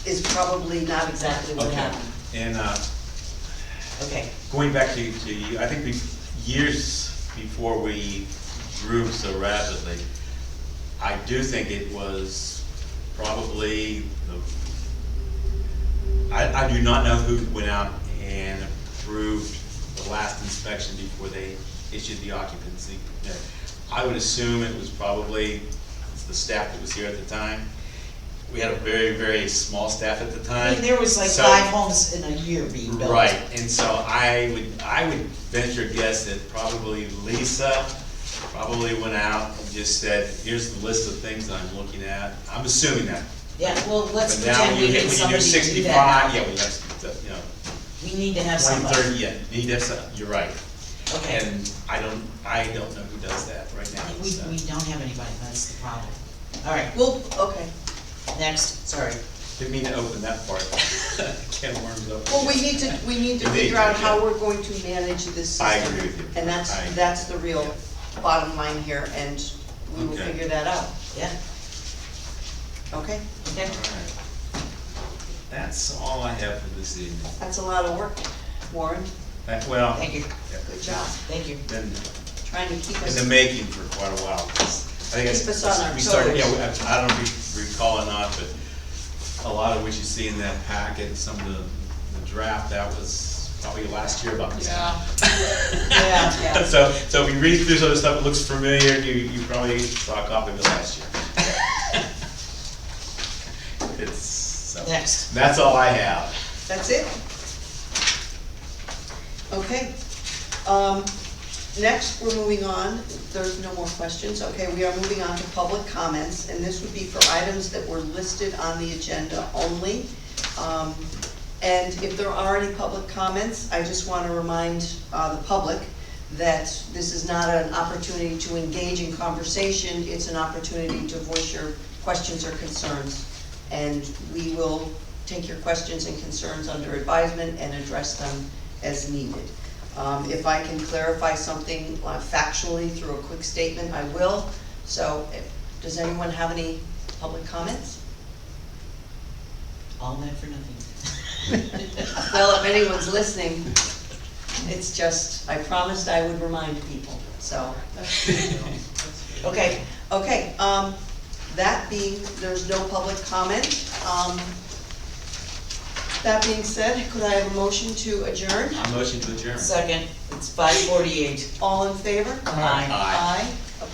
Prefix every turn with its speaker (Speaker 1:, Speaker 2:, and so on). Speaker 1: is probably not exactly what
Speaker 2: Okay,
Speaker 1: happened.
Speaker 2: and, uh,
Speaker 1: Okay,
Speaker 2: going back to, to you, I think we, years before we grew so rapidly, I do think it was probably the, I, I do not know who went out and approved the last inspection before they issued the occupancy. permit. I would assume it was probably the staff that was here at the time. We had a very, very small staff at the time.
Speaker 1: I mean, there was like
Speaker 2: so-
Speaker 1: five homes in a year being built.
Speaker 2: Right, and so I would, I would venture guess that probably Lisa probably went out and just said, here's the list of things that I'm looking at. I'm assuming that.
Speaker 1: Yeah, well, let's
Speaker 2: But now
Speaker 1: pretend
Speaker 2: when you
Speaker 1: we
Speaker 2: hit,
Speaker 1: need
Speaker 2: when you do
Speaker 1: somebody to do
Speaker 2: sixty-five,
Speaker 1: that.
Speaker 2: yeah, we have, you know,
Speaker 1: We need to have
Speaker 2: twenty,
Speaker 1: somebody,
Speaker 2: thirty, yeah, need that, so- you're right.
Speaker 1: okay.
Speaker 2: And I don't, I don't know who does that right now.
Speaker 1: We,
Speaker 2: so.
Speaker 1: we don't have anybody, that's the problem. All right, well, okay, next, sorry.
Speaker 2: Didn't mean to open that part. Can of worms open.
Speaker 3: Well, we need to, we need to
Speaker 2: You need
Speaker 3: figure
Speaker 2: to,
Speaker 3: out how
Speaker 2: yeah.
Speaker 3: we're going to manage this system.
Speaker 2: I agree with you.
Speaker 3: And that's,
Speaker 2: I-
Speaker 3: that's the real bottom line here, and we will
Speaker 2: Okay.
Speaker 3: figure that out,
Speaker 1: Yeah,
Speaker 3: okay?
Speaker 1: okay,
Speaker 2: All right. That's all I have for this evening.
Speaker 3: That's a lot of work, Warren,
Speaker 2: That- Well.
Speaker 1: thank you,
Speaker 2: yeah,
Speaker 3: good job,
Speaker 1: thank you.
Speaker 2: Been
Speaker 3: trying to keep
Speaker 2: in
Speaker 3: us,
Speaker 2: the making for quite a while. I think
Speaker 3: Keep us on our
Speaker 2: we started-
Speaker 3: toes.
Speaker 2: Yeah, we- I I don't re- recall or not, but a lot of what you see in that packet, and some of the, the draft, that was probably last year about this time.
Speaker 1: Yeah,
Speaker 3: yeah.
Speaker 2: So, so if you read through some of the stuff, it looks familiar, you, you probably saw a copy of it last year. It's, so,
Speaker 1: Next.
Speaker 2: that's all I have.
Speaker 3: that's it? Okay, um, next, we're moving on, there's no more questions, okay, we are moving on to public comments, and this would be for items that were listed on the agenda only. Um, And if there are any public comments, I just want to remind uh, the public that this is not an opportunity to engage in conversation, it's an opportunity to voice your questions or concerns. And we will take your questions and concerns under advisement and address them as needed. Um, If I can clarify something uh, factually through a quick statement, I will. So, if- does anyone have any public comments?
Speaker 1: All that for nothing.
Speaker 3: Well, if anyone's listening, it's just, I promised I would remind people, so.
Speaker 1: Okay,
Speaker 3: Okay, um, that being, there's no public comment, um, that being said, could I have a motion to adjourn?
Speaker 2: I motion to adjourn.
Speaker 1: second, it's five forty-eight.
Speaker 3: All in favor?
Speaker 1: Aye.
Speaker 2: Aye.
Speaker 3: Aye.